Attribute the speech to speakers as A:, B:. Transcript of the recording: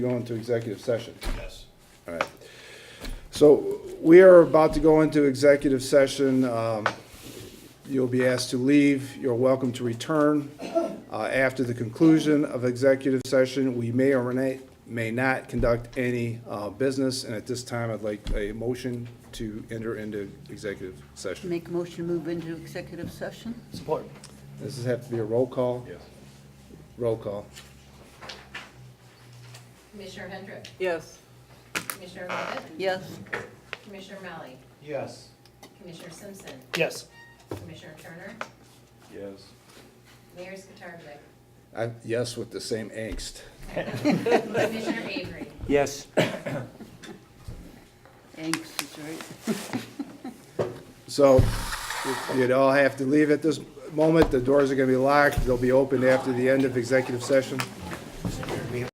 A: go into executive session.
B: Yes.
A: All right. So we are about to go into executive session. Um, You'll be asked to leave. You're welcome to return. Uh, After the conclusion of executive session, we may or may may not conduct any uh, business. And at this time, I'd like a motion to enter into executive session.
C: Make a motion to move into executive session?
B: Support.
A: Does this have to be a roll call?
B: Yes.
A: Roll call.
D: Commissioner Hendrick,
C: Yes.
D: Commissioner Levitt,
C: Yes.
D: Commissioner Malley,
B: Yes.
D: Commissioner Simpson,
B: Yes.
D: Commissioner Turner,
B: Yes.
D: Mayor Skatarvik,
A: I- Yes, with the same angst.
D: Commissioner Avery.
B: Yes.
C: Thanks, is right.
A: So you'd all have to leave at this moment. The doors are going to be locked. They'll be opened after the end of executive session.